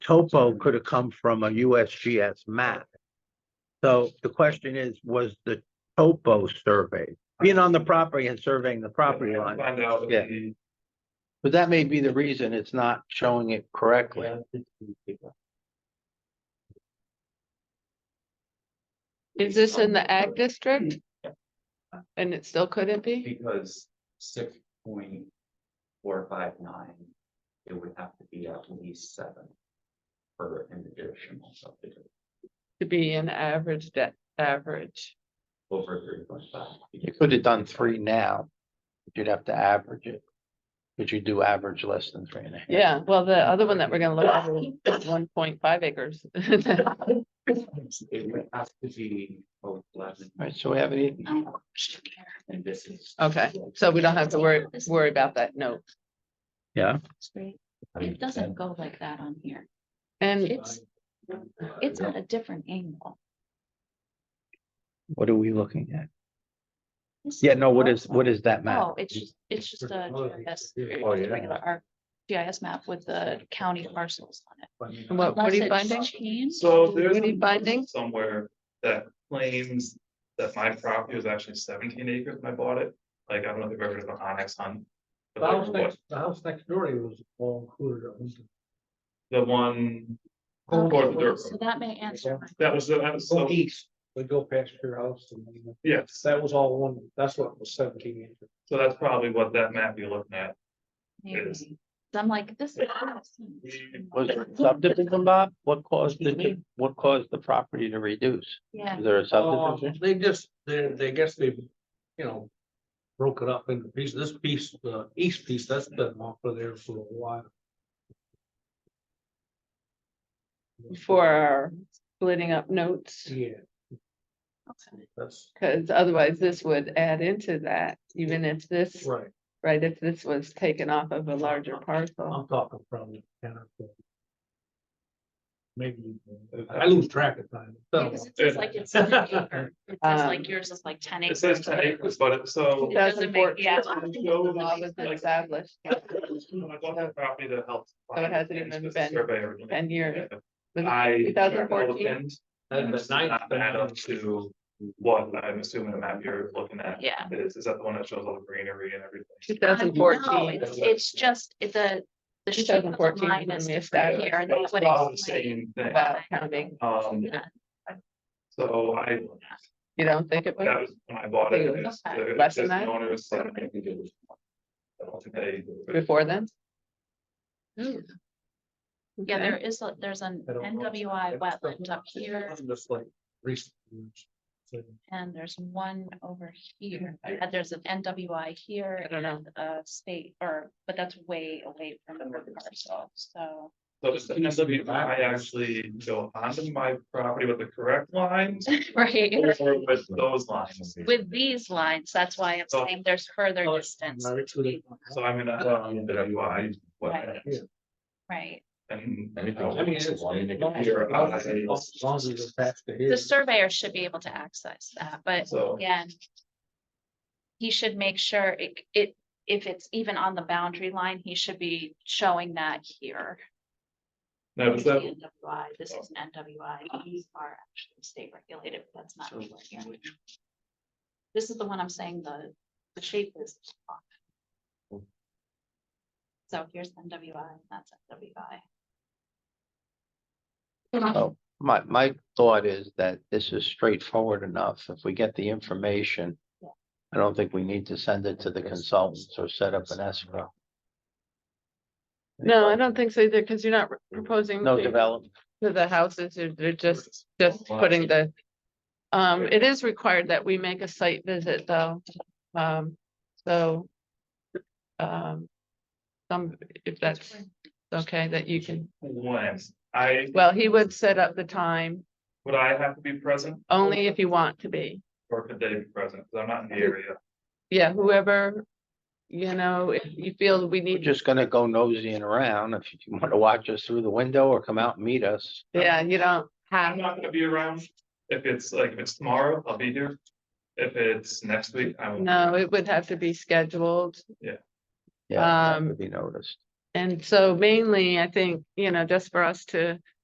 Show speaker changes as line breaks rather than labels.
topo could have come from a USGS map. So the question is, was the topo surveyed? Being on the property and surveying the property line,
Find out.
Yeah. but that may be the reason it's not showing it correctly.
Is this in the ag district?
Yeah.
And it still couldn't be?
Because six point four five nine, it would have to be at least seven. For an additional subdivision
To be an average debt, average.
over three point five.
You could have done three now. but You'd have to average it. But you do average less than three and a half.
Yeah, well, the other one that we're gonna look at is one point five acres.
It would have to be both eleven.
Alright, so we have any,
And this is.
Okay, so we don't have to worry, worry about that note.
It's great. It doesn't go like that on here.
And
It's, it's at a different angle.
what are we looking at?
This
Yeah, no, what is,
awesome.
what is that map?
Oh, it's just, it's just a GIS,
Oh,
it's
yeah.
a regular R- GIS map with the county parcels on it.
What- what are you
Unless it's
finding?
changed.
So there's
Any
a
findings?
somewhere that claims that my property was actually seventeen acres when I bought it. Like, I don't know if you've ever heard of an Onyx Hunt.
The
but
house
there was-
next, the house next door to you was all included, it was
The one. toward the
Oh, Okay,
dirt
So
road.
that may answer. my-
That was, the- that was,
go
so,
east, but go past your house and then-
yes,
that was all one, that's what was seventeen acres.
so that's probably what that map you're looking at.
maybe. So I'm like, this. is-
Was there a subdivision, Bob? What caused the, what caused the property to reduce?
Yeah,
Is there a
Uh,
subdivision?
They just, they, they guess they, you know, broke it up into pieces, this piece, the east piece, that's been off of there for a while.
for our splitting up notes,
Yeah,
okay.
that's
because otherwise this would add into that, even if this,
right,
right, if this was taken off of a larger parcel.
I'm talking from the kind of. Maybe, I lose track of time.
Yeah, 'cause it's just like it's an acre. It says
Um,
like yours is like ten
It
acres.
says ten acres, but it, so.
It doesn't make- yeah.
Go
Law was
like-
established
When I bought that property that helped.
So it hasn't even been ten years.
I.
2014?
and
That's the ninth.
Add up to what I'm assuming the map you're looking at
Yeah.
is, is that the one that shows all the greenery and everything?
Two
I
thousand
know,
fourteen.
It's it's just, it- the, the shape of the
2014
line
when
is
we
different
established
here. and
That
that's
was
what
all the
it's like.
same thing.
About counting,
Um,
Yeah.
so I,
you don't think it
that
was?
was when I bought it. and it's-
Okay.
the-
Less than
it's
that?
known as, like, I think it was- I don't think they-
Before then?
Hmm. Yeah,
Okay.
there is, a- there's an
I don't know.
NWI wetland up here
It's Just like recent. years. So,
and there's one over here. And there's an NWI here.
I don't know.
and A state or, but that's way away from the parcel, so.
So it's the NWI actually go onto my property with the correct lines
Right,
or with those lines.
with these lines, that's why I'm
So-
saying there's further
Oh, it's
distance.
married to the-
So I'm gonna, um, the NWI. what-
Yeah.
Right,
And.
I mean, it's- as long as long as it's attached to
the
here.
surveyor should be able to access that, but
So.
again. He should make sure it, it, if it's even on the boundary line, he should be showing that here.
No,
This
but
is
that,
NWI, this is an NWI, these are actually state regulated, but that's not. anywhere here. This is the one I'm saying the, the shape is off.
Hmm.
So here's NWI, that's NWI.
Oh, my, my thought is that this is straightforward enough. If we get the information. I don't think we need to send it to the consultants or set up an escrow.
No, I don't think so either, because you're not proposing
No
to-
development.
to the houses, you're- they're just, just putting the. Um, it is required that we make a site visit though, um, so. Um, some, if that's okay, that you can,
when, I,
well, he would set up the time,
would I have to be present
only if you want to be.
or could they be present? Cause I'm not in the area.
Yeah, whoever, you know, if you feel we
We're
need,
just gonna go nosying around. If you want to watch us through the window or come out and meet us.
yeah, you don't
I'm
have,
not gonna be around. If it's like, if it's tomorrow, I'll be here. If it's next week, I will.
no, it would have to be scheduled.
Yeah, that
Um,
would be noticed.
And so mainly, I think, you know, just for us to